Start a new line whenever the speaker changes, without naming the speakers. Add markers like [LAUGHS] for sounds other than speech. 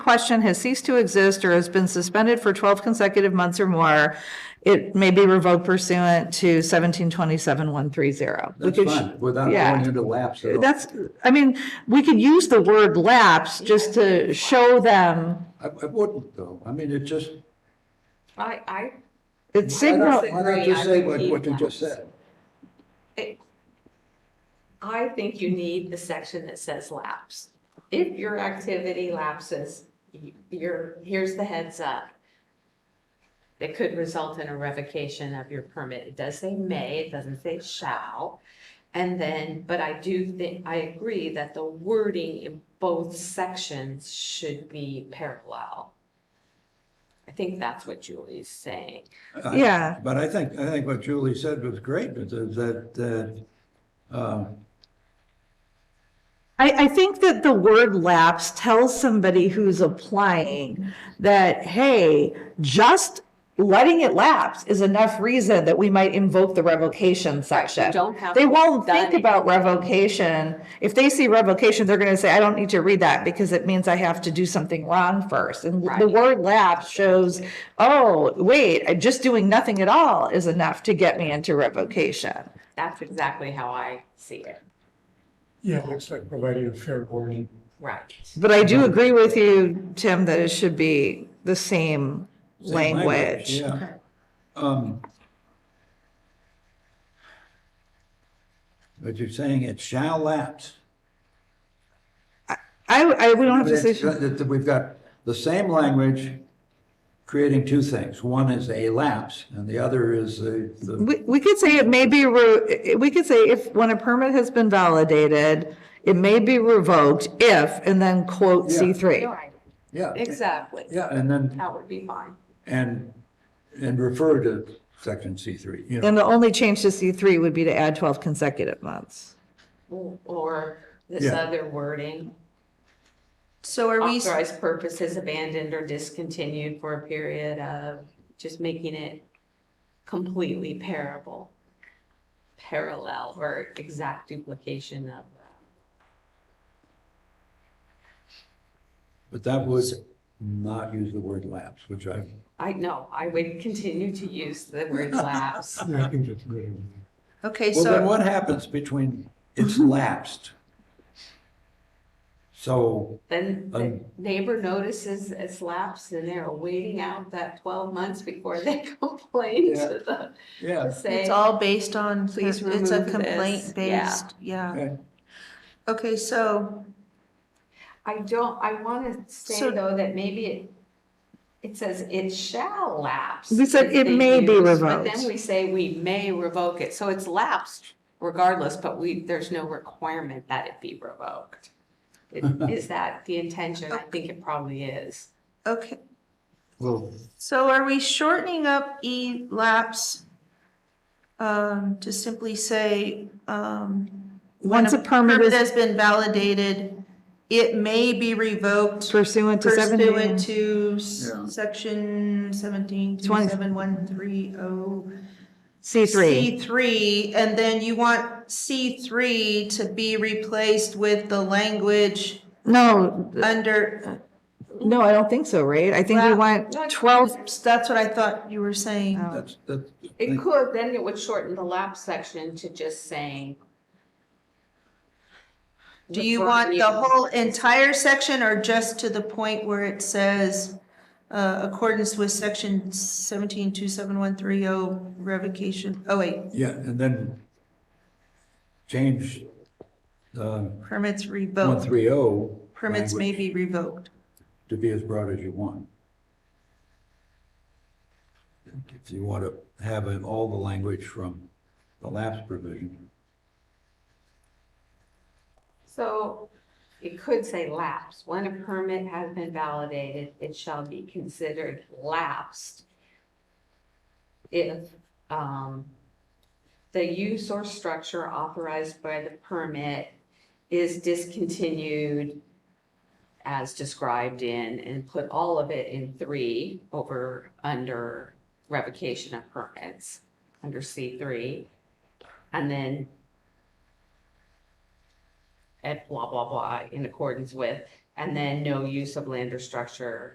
question has ceased to exist or has been suspended for twelve consecutive months or more, it may be revoked pursuant to seventeen twenty-seven one three zero.
That's fine, without
yeah.
going into lapse at all.
That's, I mean, we could use the word lapse just to show them
I, I wouldn't though. I mean, it just,
I, I,
it's
why not,
signal.
why not
Disagree, I
just say
would
what,
keep
what you just
lapse.
said?
I think you need the section that says lapse. If your activity lapses, y- you're, here's the heads up. It could result in a revocation of your permit. It does say may, it doesn't say shall. And then, but I do think, I agree that the wording in both sections should be parallel. I think that's what Julie's saying.
I-
Yeah.
But I think, I think what Julie said was great, but that, that, uh,
I, I think that the word lapse tells somebody who's applying that, hey, just letting it lapse is enough reason that we might invoke the revocation section.
don't have
They
to
won't
have
think
done
about revocation. If they see revocation, they're gonna say, I don't need to read that because it means I have to do something wrong first. And the
Right.
word lapse shows, oh, wait, I- just doing nothing at all is enough to get me into revocation.
That's exactly how I see it.
Yeah, it looks like providing a fair warning.
Right.
But I do agree with you, Tim, that it should be the same
same
language.
language, yeah. Um, But you're saying it shall lapse.
I, I, we don't have to say,
It's- that- that We've got the same language creating two things. One is a lapse and the other is the, the-
we, we could say it may be, re- we could say if, when a permit has been validated, it may be revoked if, and then quote C
Yeah.
three.
yeah.
Exactly.
Yeah, and then,
That would be fine.
and, and refer to section C three, you know.
And the only change to C three would be to add twelve consecutive months.
Or this
Yeah.
other wording,
So are we,
authorized purposes abandoned or discontinued for a period of, just making it completely parable, parallel or exact duplication of.
But that would not use the word lapse, which I,
I know, I would continue to use the word lapse.
Yeah, I think that's really.
okay,
well, then
so, Mm-hmm.
what happens between, it's lapsed? So,
Then the
Um.
neighbor notices it's lapsed and they're waiting out that twelve months before they [LAUGHS] complain
Yeah.
to the, to
yeah,
say.
it's all based on,
Please
it's a
remove this,
complaint
yeah.
based, yeah.
okay.
Okay, so,
I don't, I want to say
So-
though that maybe it, it says it shall lapse.
We said
if
it
they
may be
use, But
revoked.
then we say we may revoke it, so it's lapsed regardless, but we, there's no requirement that it be revoked. It- Is that the intention? I think it probably is.
okay,
well,
so are we shortening up E lapse? Um, to simply say, um. when
Once a permit is
Has been validated, it may be revoked
pursuant to seventeen.
pursuant to
Yeah.
s- section seventeen,
Twenty.
twenty-seven, one, three, oh.
C three.
C three, and then you want C three to be replaced with the language
No,
under,
no, I don't think so, right? I think we
Well,
want twelve, Oh.
that's what I thought you were saying.
that's, that's.
It could, then it would shorten the lapse section to just saying.
Do you want the whole entire section or just to the point where it says, uh, accordance with section seventeen two seven one three oh revocation, oh wait,
Yeah, and then change the
permits
one
revoked,
three oh.
permits may be revoked.
To be as broad as you want. If you want to have in all the language from the lapse provision.
So it could say lapse. When a permit has been validated, it shall be considered lapsed if um, the use or structure authorized by the permit is discontinued as described in, and put all of it in three over, under revocation of permits, under C3. And then at blah, blah, blah, in accordance with, And then no use of land or structure